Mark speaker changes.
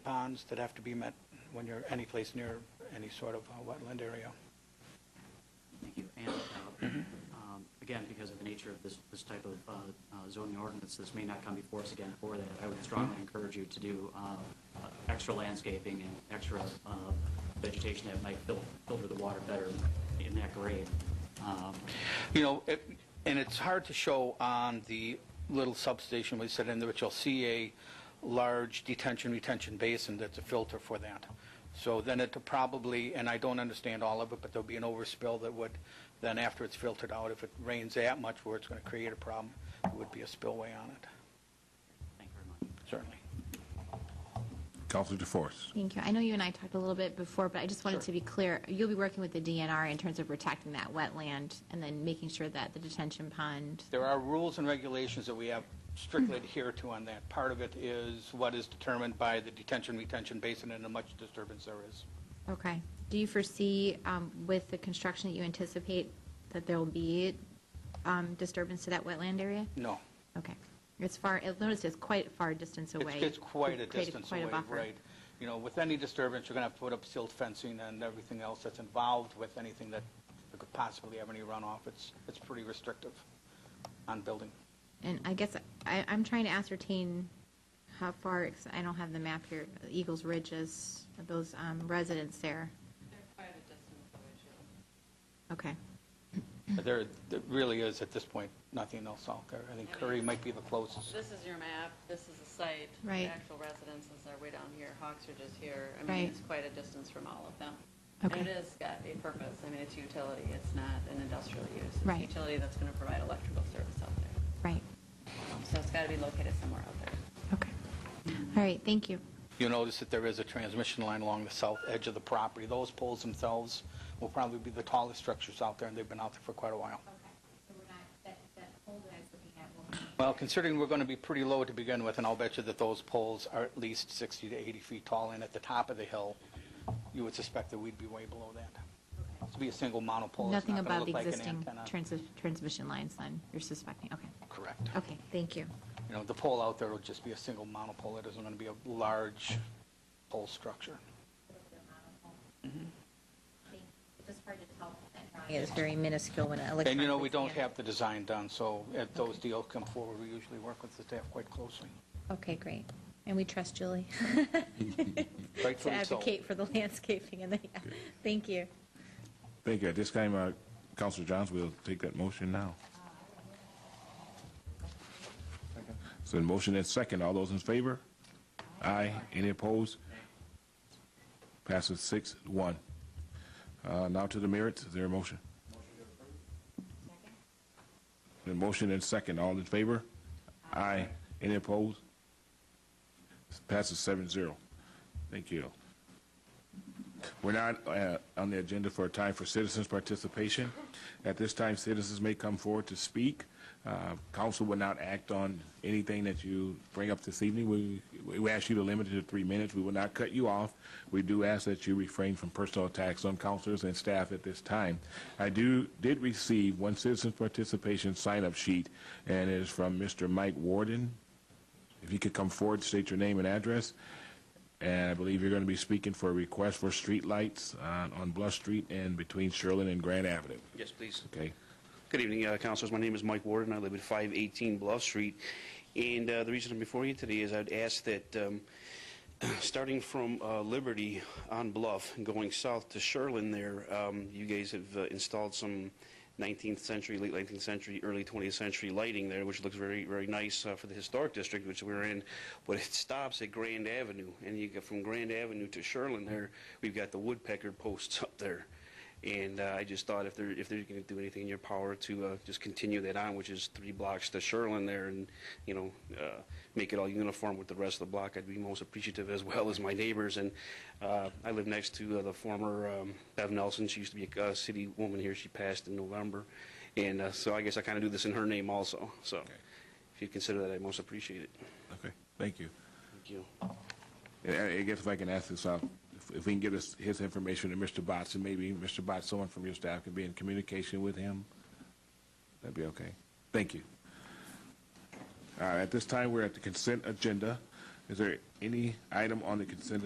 Speaker 1: ponds that have to be met when you're any place near any sort of uh, wetland area.
Speaker 2: Thank you. And, uh, um, again, because of the nature of this, this type of uh, uh, zoning ordinance, this may not come before us again for that. I would strongly encourage you to do uh, uh, extra landscaping and extra uh, vegetation that might fil- filter the water better in that grade. Um,
Speaker 1: You know, it- and it's hard to show on the little substation we set in there, but you'll see a large detention retention basin that's a filter for that. So then it probably, and I don't understand all of it, but there'll be an overspill that would, then after it's filtered out, if it rains that much where it's going to create a problem, it would be a spillway on it,
Speaker 2: Thank you very much.
Speaker 1: certainly.
Speaker 3: Counselor DeForest.
Speaker 4: Thank you. I know you and I talked a little bit before, but I just wanted to be clear. You'll be working with the DNR in terms of protecting that wetland and then making sure that the detention pond,
Speaker 1: There are rules and regulations that we have strictly
Speaker 4: Mm-hmm.
Speaker 1: adhere to on that. Part of it is what is determined by the detention retention basin and how much disturbance there is.
Speaker 4: okay. Do you foresee um, with the construction that you anticipate that there will be um, disturbance to that wetland area?
Speaker 1: No.
Speaker 4: Okay. It's far, I noticed it's quite a far distance away.
Speaker 1: It's, it's quite a
Speaker 4: You've created
Speaker 1: distance
Speaker 4: quite a
Speaker 1: away,
Speaker 4: buffer.
Speaker 1: right. You know, with any disturbance, you're going to have to put up silt fencing and everything else that's involved with anything that that could possibly have any runoff. It's, it's pretty restrictive on building.
Speaker 4: And I guess I, I'm trying to ascertain how far, ex- I don't have the map here, Eagles Ridge is, those um, residents there.
Speaker 5: They're quite a distance away, too.
Speaker 4: Okay.
Speaker 1: There, there really is, at this point, nothing else out there. I think Curry might be the closest.
Speaker 5: This is your map, this is the site.
Speaker 4: Right.
Speaker 5: The actual residences are way down here, Hawks are just here. I mean,
Speaker 4: Right.
Speaker 5: it's quite a distance from all of them.
Speaker 4: Okay.
Speaker 5: And it has got a purpose, I mean, it's utility, it's not an industrial use. It's
Speaker 4: Right.
Speaker 5: Utility that's going to provide electrical service out there.
Speaker 4: Right.
Speaker 5: So it's got to be located somewhere out there.
Speaker 4: Okay. All right, thank you.
Speaker 1: You'll notice that there is a transmission line along the south edge of the property. Those poles themselves will probably be the tallest structures out there, and they've been out there for quite a while.
Speaker 4: Okay, so we're not, that, that hole that I was looking at will
Speaker 1: Well, considering we're going to be pretty low to begin with, and I'll bet you that those poles are at least 60 to 80 feet tall, and at the top of the hill, you would suspect that we'd be way below that. To be a single monopole, it's
Speaker 4: Nothing
Speaker 1: not going to look
Speaker 4: above the
Speaker 1: like an
Speaker 4: existing
Speaker 1: antenna.
Speaker 4: trans- transmission lines, then, you're suspecting, okay.
Speaker 1: Correct.
Speaker 4: Okay, thank you.
Speaker 1: You know, the pole out there will just be a single monopole. It isn't going to be a large pole structure.
Speaker 4: It's Mm-hmm. just hard to tell. It's very minuscule when an
Speaker 1: And you know, we
Speaker 4: electronic
Speaker 1: don't
Speaker 4: scanner-
Speaker 1: have the design done, so if those deals come forward, we usually work with the staff quite closely.
Speaker 4: Okay, great. And we trust Julie to
Speaker 1: Rightfully so.
Speaker 4: advocate for the landscaping and the, yeah. thank you.
Speaker 3: Thank you. At this time, uh, Counselor Johns will take that motion now. So the motion is second. All those in favor? Aye. Any opposed? Passes six, one. Uh, Now to the merits. Is there a motion? The motion is second. All in favor? Aye. Any opposed? Passes seven, zero. Thank you. We're not uh, on the agenda for a time for citizens' participation. At this time, citizens may come forward to speak. Uh, Council will not act on anything that you bring up this evening. We we ask you to limit it to three minutes. We will not cut you off. We do ask that you refrain from personal attacks on councilors and staff at this time. I do, did receive one citizens' participation sign-up sheet, and it is from Mr. Mike Warden. If you could come forward, state your name and address. And I believe you're going to be speaking for a request for streetlights on, on Bluff Street and between Shirley and Grand Avenue.
Speaker 6: Yes, please.
Speaker 3: Okay?
Speaker 6: Good evening, uh, councilors. My name is Mike Warden. I live at 518 Bluff Street. And uh, the reason I'm before you today is I'd ask that, um, starting from uh, Liberty on Bluff and going south to Sherlin there, um, you guys have uh, installed some 19th century, late 19th century, early 20th century lighting there, which looks very, very nice uh, for the historic district which we're in. But it stops at Grand Avenue. And you get from Grand Avenue to Sherlin there, we've got the woodpecker posts up there. And uh, I just thought if they're, if they're going to do anything in your power to uh, just continue that on, which is three blocks to Sherlin there and, you know, uh, make it all uniform with the rest of the block, I'd be most appreciative as well as my neighbors. And uh, I live next to uh, the former um, Bev Nelson. She used to be a uh, city woman here. She passed in November. And uh, so I guess I kind of do this in her name also. So if you consider that, I most appreciate it.
Speaker 3: Okay, thank you.
Speaker 6: Thank you.
Speaker 3: And I I guess if I can ask this out, if- if we can give us his information to Mr. Botts, and maybe Mr. Botts, someone from your staff can be in communication with him, that'd be okay. Thank you. All right, at this time, we're at the consent agenda. Is there any item on the consent